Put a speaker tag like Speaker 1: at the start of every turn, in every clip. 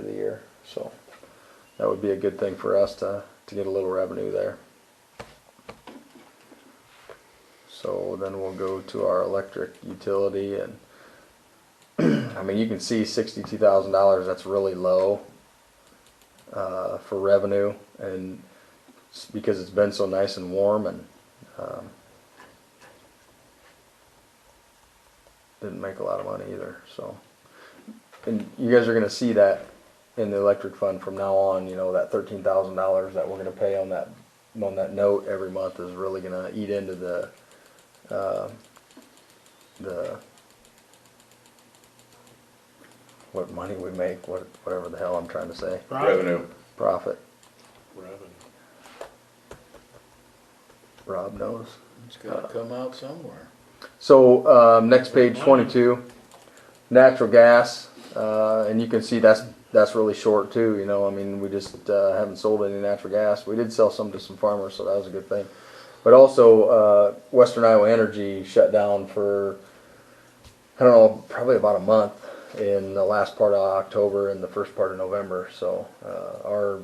Speaker 1: year. So that would be a good thing for us to, to get a little revenue there. So then we'll go to our electric utility and, I mean, you can see sixty-two thousand dollars, that's really low uh, for revenue and s- because it's been so nice and warm and um, didn't make a lot of money either, so. And you guys are gonna see that in the electric fund from now on, you know, that thirteen thousand dollars that we're gonna pay on that, on that note every month is really gonna eat into the, uh, the, what money we make, what, whatever the hell I'm trying to say,
Speaker 2: Revenue.
Speaker 1: profit.
Speaker 3: Revenue.
Speaker 1: Rob knows. Uh,
Speaker 3: It's gotta come out somewhere.
Speaker 1: So, um, next page twenty-two, natural gas, uh, and you can see that's, that's really short too, you know, I mean, we just, uh, haven't sold any natural gas. We did sell some to some farmers, so that was a good thing. But also, uh, Western Iowa Energy shut down for, I don't know, probably about a month in the last part of October and the first part of November, so, uh, our,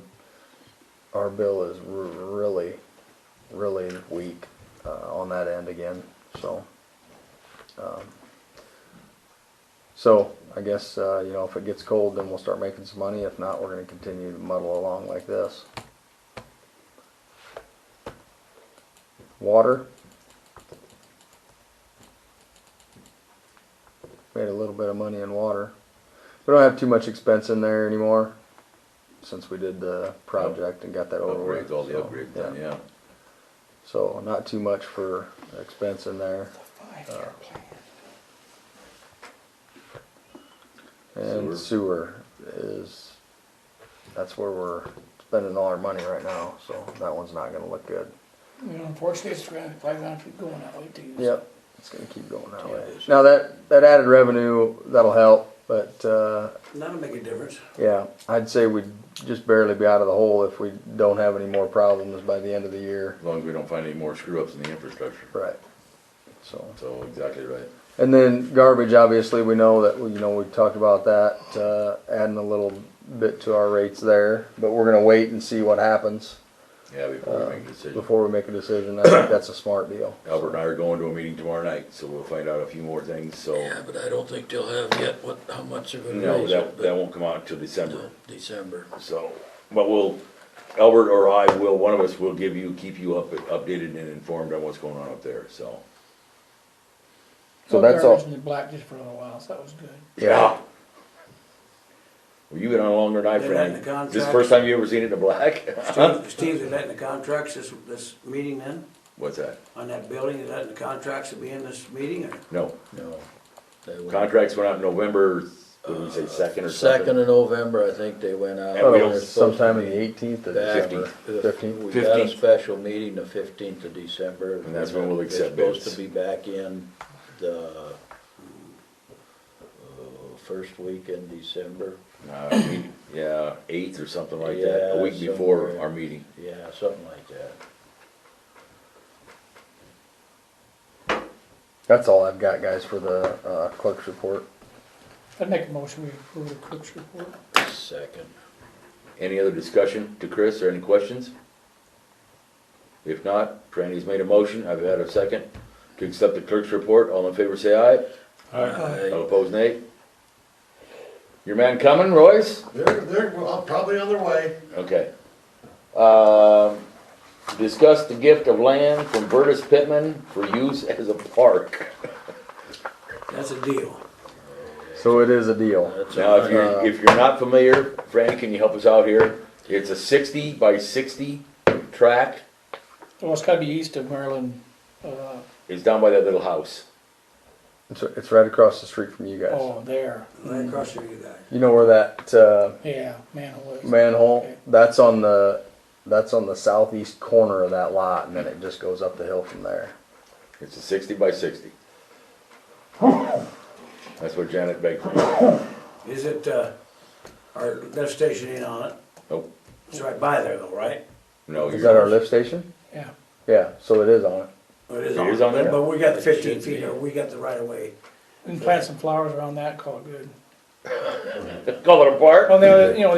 Speaker 1: our bill is r- really, really weak, uh, on that end again, so. um, So I guess, uh, you know, if it gets cold, then we'll start making some money. If not, we're gonna continue to muddle along like this. Water. Made a little bit of money in water. We don't have too much expense in there anymore since we did the project and got that over with.
Speaker 2: Upgrades, all the
Speaker 1: So,
Speaker 2: upgrades done, yeah.
Speaker 1: So not too much for expense in there.
Speaker 3: Five-year plan.
Speaker 1: And sewer is, that's where we're spending all our money right now, so that one's not gonna look good.
Speaker 4: You know, unfortunately, it's gonna, probably gonna keep going that way too. so.
Speaker 1: Yep, it's gonna keep going that way.
Speaker 2: Yeah, it is.
Speaker 1: Now, that, that added revenue, that'll help, but, uh,
Speaker 5: That'll make a difference.
Speaker 1: yeah, I'd say we'd just barely be out of the hole if we don't have any more problems by the end of the year.
Speaker 2: As long as we don't find any more screw-ups in the infrastructure.
Speaker 1: Right. So.
Speaker 2: So, exactly right.
Speaker 1: And then garbage, obviously, we know that, you know, we talked about that, uh, adding a little bit to our rates there, but we're gonna wait and see what happens.
Speaker 2: Yeah, before we make a decision.
Speaker 1: Uh, before we make a decision, I think that's a smart deal.
Speaker 2: Albert and I are going to a meeting tomorrow night, so we'll find out a few more things, so.
Speaker 3: Yeah, but I don't think they'll have yet what, how much they're gonna
Speaker 2: No,
Speaker 3: raise it,
Speaker 2: that, that
Speaker 3: but
Speaker 2: won't come out until December,
Speaker 3: no, December.
Speaker 2: so, but we'll, Albert or I will, one of us will give you, keep you up, updated and informed on what's going on up there, so.
Speaker 1: So that's all-
Speaker 4: Garbage in the black just for a little while, so that was good.
Speaker 2: Well, you've been on longer than I,
Speaker 5: They're letting the
Speaker 2: Frank. This the
Speaker 5: contract-
Speaker 2: first time you ever seen it in the black?
Speaker 5: Steve, Steve, they letting the contracts this, this meeting then,
Speaker 2: What's that?
Speaker 5: on that building, they letting the contracts be in this meeting or?
Speaker 2: No,
Speaker 3: No. they went-
Speaker 2: contracts went out November, what did we say, second or something?
Speaker 3: Second of November, I think they went out.
Speaker 2: And we don't-
Speaker 3: They're supposed to
Speaker 1: Sometime in
Speaker 3: be
Speaker 1: the eighteenth of
Speaker 3: back.
Speaker 1: December,
Speaker 3: We
Speaker 1: fifteenth,
Speaker 3: got a
Speaker 2: 15th.
Speaker 3: special meeting the fifteenth of December.
Speaker 2: And that's when we'll
Speaker 3: They're
Speaker 2: accept bids.
Speaker 3: Supposed to be back in the, uh, first week in December,
Speaker 2: Uh, we- Yeah, eighth or something like that, a
Speaker 3: Yeah,
Speaker 2: week before
Speaker 3: somewhere.
Speaker 2: our meeting.
Speaker 3: yeah, something like that.
Speaker 1: that's all I've got, guys, for the, uh, clerk's report.
Speaker 4: I'd make a motion, we approve the clerk's report.
Speaker 3: Second.
Speaker 2: Any other discussion to Chris or any questions? If not, Franny's made a motion, I've had a second, to accept the clerk's report, all in favor say aye, all opposed nay. Your man coming, Royce?
Speaker 6: They're, they're, well, probably on their way.
Speaker 2: Okay. Um, discuss the gift of land from Burtis Pittman for use as a park.
Speaker 5: That's a deal.
Speaker 1: So it is a deal.
Speaker 3: That's
Speaker 2: Now,
Speaker 3: all
Speaker 2: if
Speaker 1: Uh,
Speaker 2: you're, if you're not familiar, Franny, can you help us out here? It's a sixty by sixty tract,
Speaker 4: Well, it's gotta be east of Maryland, uh,
Speaker 2: it's down by that little house.
Speaker 1: It's, it's right across the street from you guys.
Speaker 4: oh, there,
Speaker 5: Right across from you guys.
Speaker 1: You know where that, uh,
Speaker 4: yeah, manhole is.
Speaker 1: manhole, that's on the, that's on the southeast corner of that lot, and then it just goes up the hill from there.
Speaker 2: It's a sixty by sixty. That's what Janet begged for.
Speaker 5: Is it, uh, our lift station ain't on it?
Speaker 2: Nope,
Speaker 5: It's right by there though, right?
Speaker 2: Oh, no.
Speaker 1: Is
Speaker 2: you're-
Speaker 1: that our lift station?
Speaker 4: Yeah,
Speaker 1: Yeah, so it is on it.
Speaker 5: It is
Speaker 2: It
Speaker 5: on.
Speaker 2: is on there?
Speaker 5: But we got the
Speaker 3: It should
Speaker 5: fifteen
Speaker 3: be.
Speaker 5: feet or we got the right of way.
Speaker 4: and plant some flowers around that, call it good.
Speaker 2: Call it a park?
Speaker 4: Well, the other, you know,